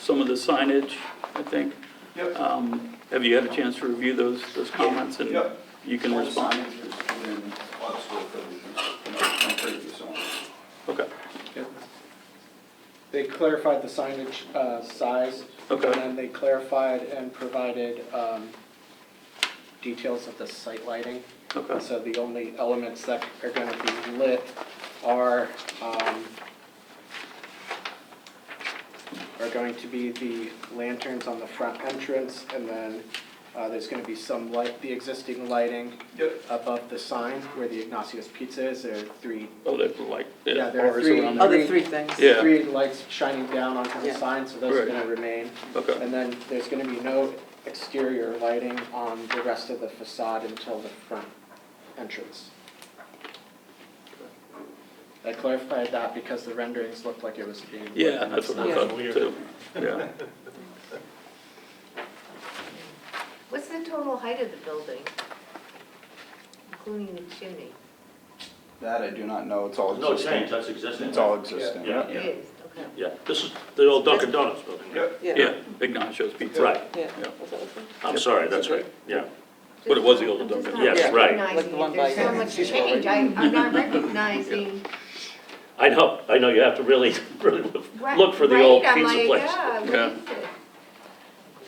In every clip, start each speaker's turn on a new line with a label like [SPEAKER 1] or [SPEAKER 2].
[SPEAKER 1] some of the signage, I think.
[SPEAKER 2] Yep.
[SPEAKER 1] Um, Have you had a chance to review those, those comments? and
[SPEAKER 2] Yep.
[SPEAKER 1] You can respond? Okay,
[SPEAKER 3] They clarified the signage uh, size.
[SPEAKER 1] Okay.
[SPEAKER 3] And then they clarified and provided um, details of the site lighting.
[SPEAKER 1] Okay.
[SPEAKER 3] So the only elements that are going to be lit are, um, are going to be the lanterns on the front entrance, and then uh, there's going to be some light, the existing lighting
[SPEAKER 2] Yep.
[SPEAKER 3] above the sign where the Ignatius Pizza is, there are three
[SPEAKER 1] oh, they were like, yeah,
[SPEAKER 3] Yeah, there are
[SPEAKER 1] bars
[SPEAKER 3] three-
[SPEAKER 1] around there.
[SPEAKER 4] Other three things.
[SPEAKER 1] Yeah.
[SPEAKER 3] three lights shining down onto the
[SPEAKER 4] Yeah.
[SPEAKER 3] sign, so those are
[SPEAKER 1] Right.
[SPEAKER 3] gonna remain.
[SPEAKER 1] Okay.
[SPEAKER 3] And then there's gonna be no exterior lighting on the rest of the facade until the front entrance. I clarified that because the renderings looked like it was being.
[SPEAKER 1] Yeah, that's what I
[SPEAKER 4] Yeah.
[SPEAKER 1] thought too, yeah.
[SPEAKER 5] What's the total height of the building? Including the chimney?
[SPEAKER 6] That I do not know, it's all
[SPEAKER 7] Oh, No change,
[SPEAKER 6] existing.
[SPEAKER 7] that's existing.
[SPEAKER 6] It's all existing.
[SPEAKER 7] Yeah.
[SPEAKER 5] It is, okay.
[SPEAKER 7] Yeah, this is the old Dunkin' Donuts building.
[SPEAKER 2] Yep.
[SPEAKER 1] Yeah, Ignacio's Pizza.
[SPEAKER 7] Right,
[SPEAKER 4] Yeah.
[SPEAKER 1] Yeah.
[SPEAKER 4] Was that what it was?
[SPEAKER 7] I'm sorry, that's right, yeah.
[SPEAKER 1] But it was the older
[SPEAKER 5] I'm just
[SPEAKER 1] Dunkin'.
[SPEAKER 5] not
[SPEAKER 7] Yes, right.
[SPEAKER 4] Like the
[SPEAKER 5] recognizing
[SPEAKER 4] one
[SPEAKER 5] it. There's
[SPEAKER 4] by-
[SPEAKER 5] so much change. I, I'm not recognizing.
[SPEAKER 7] I know, I know, you have to really, really look-
[SPEAKER 5] Right-
[SPEAKER 7] look for the old
[SPEAKER 5] right, I'm
[SPEAKER 7] pizza
[SPEAKER 5] like,
[SPEAKER 7] place.
[SPEAKER 5] yeah, what
[SPEAKER 1] Yeah.
[SPEAKER 5] is it?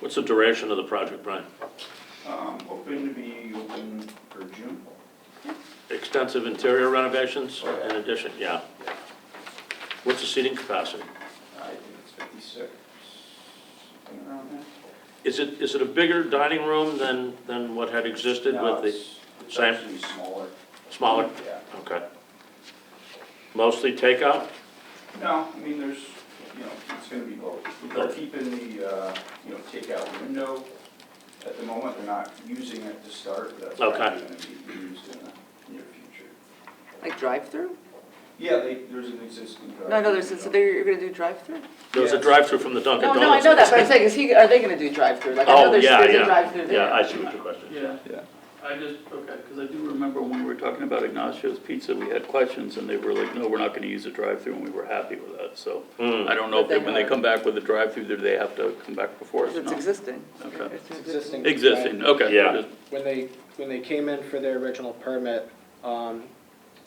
[SPEAKER 7] What's the duration of the project, Brian?
[SPEAKER 6] Um, Hoping to be open for June.
[SPEAKER 7] Extensive interior renovations in addition, yeah. What's the seating capacity?
[SPEAKER 6] I think it's 56, something around there.
[SPEAKER 7] Is it, is it a bigger dining room than, than what had existed
[SPEAKER 6] No,
[SPEAKER 7] with the
[SPEAKER 6] it's- It's
[SPEAKER 7] same-
[SPEAKER 6] actually smaller.
[SPEAKER 7] smaller?
[SPEAKER 6] Yeah.
[SPEAKER 7] Okay. Mostly takeout?
[SPEAKER 6] No, I mean, there's, you know, it's gonna be both. They're
[SPEAKER 7] Both.
[SPEAKER 6] keeping the, uh, you know, takeout window. At the moment, they're not using it to start, but that's
[SPEAKER 7] Okay.
[SPEAKER 6] probably gonna be used in the near future.
[SPEAKER 4] Like drive-through?
[SPEAKER 6] Yeah, they, there's an existing drive.
[SPEAKER 4] No, no, there's, so there, you're gonna do drive-through?
[SPEAKER 7] There was a
[SPEAKER 6] Yes.
[SPEAKER 7] drive-through from the Dunkin'
[SPEAKER 4] No,
[SPEAKER 7] Donuts.
[SPEAKER 4] no, I know that, but I'm saying, is he, are they gonna do drive-through? Like, I know
[SPEAKER 7] Oh,
[SPEAKER 4] there's,
[SPEAKER 7] yeah,
[SPEAKER 4] there's
[SPEAKER 7] yeah.
[SPEAKER 4] a drive-through there.
[SPEAKER 7] Yeah, I see what your question is.
[SPEAKER 1] Yeah,
[SPEAKER 6] Yeah.
[SPEAKER 1] I just, okay, because I do remember when we were talking about Ignacio's Pizza, we had questions and they were like, no, we're not gonna use a drive-through and we were happy with that, so.
[SPEAKER 7] Hmm.
[SPEAKER 1] I don't know if they,
[SPEAKER 4] But they
[SPEAKER 1] when they
[SPEAKER 4] are.
[SPEAKER 1] come back with a drive-through, do they have to come back before us?
[SPEAKER 4] Because it's
[SPEAKER 1] No.
[SPEAKER 4] existing.
[SPEAKER 1] Okay.
[SPEAKER 4] It's an
[SPEAKER 3] Existing.
[SPEAKER 1] Existing, okay.
[SPEAKER 7] Yeah.
[SPEAKER 1] Just-
[SPEAKER 3] When they, when they came in for their original permit, um,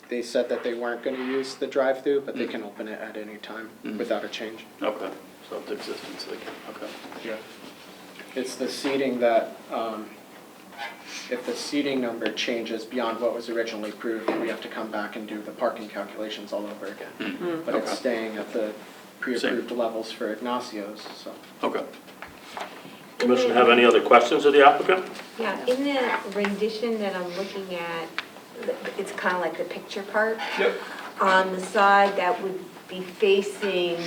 [SPEAKER 3] they said that they weren't gonna use the drive-through, but they can open it at any time
[SPEAKER 1] Mm.
[SPEAKER 3] without a change.
[SPEAKER 1] Okay, so it's existing, so they can, okay.
[SPEAKER 3] Yeah. It's the seating that, um, if the seating number changes beyond what was originally approved, we have to come back and do the parking calculations all over again. But
[SPEAKER 1] okay.
[SPEAKER 3] it's staying at the pre-approved levels for Ignacio's, so.
[SPEAKER 1] Okay.
[SPEAKER 7] Commission have any other questions of the applicant?
[SPEAKER 5] Yeah, in the rendition that I'm looking at, it's kind of like the picture part.
[SPEAKER 6] Yep.
[SPEAKER 5] On the side that would be facing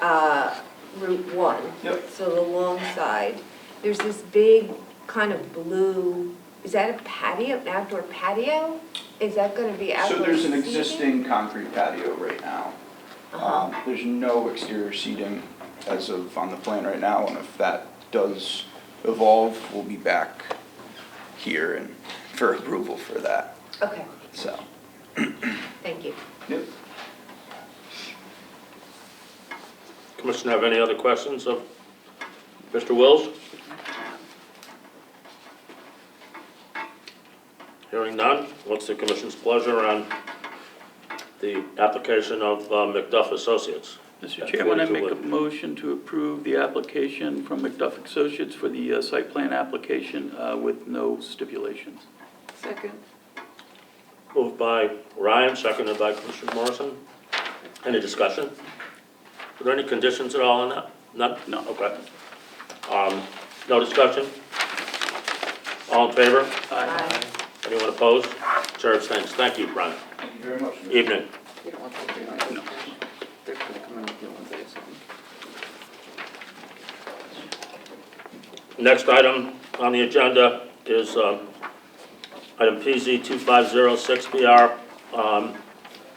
[SPEAKER 5] uh, Route 1.
[SPEAKER 6] Yep.
[SPEAKER 5] So the long side. There's this big kind of blue, is that a patio, an outdoor patio? Is that going to be outdoor
[SPEAKER 6] So there's an
[SPEAKER 5] seating?
[SPEAKER 6] existing concrete patio right now. Um, There's no exterior seating as of on the plan right now, and if that does evolve, we'll be back here and for approval for that,
[SPEAKER 5] Okay,
[SPEAKER 6] so.
[SPEAKER 5] thank you.
[SPEAKER 6] Yep.
[SPEAKER 7] Commission have any other questions of Mr. Wills? Hearing none, what's the commission's pleasure on the application of uh, McDuff Associates?
[SPEAKER 1] Mr.
[SPEAKER 7] That's
[SPEAKER 1] Chairman, I
[SPEAKER 7] what it
[SPEAKER 1] make a
[SPEAKER 7] would.
[SPEAKER 1] motion to approve the application from McDuff Associates for the uh, site plan application uh, with no stipulations.
[SPEAKER 4] Second.
[SPEAKER 7] Moved by Ryan, seconded by Commissioner Morrison. Any discussion? Are there any conditions at all on that? None? No, okay. Um, no discussion? All in favor?
[SPEAKER 5] Bye.
[SPEAKER 7] Anyone opposed? Chair abstains. Thank you, Brian.
[SPEAKER 6] Thank you very much. Mr.
[SPEAKER 7] Evening.
[SPEAKER 4] You don't want them to do it. They're gonna come in with new ones, I assume.
[SPEAKER 7] Next item on the agenda is um, item PZ 2506BR. Um,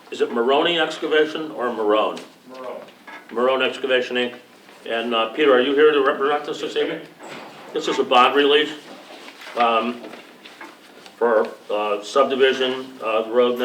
[SPEAKER 7] Is it Maroni Excavation or Marone? Marone. Marone Excavation Inc. And uh, Peter, are you here to represent us this evening? This is a bond release um, for uh, subdivision, uh, road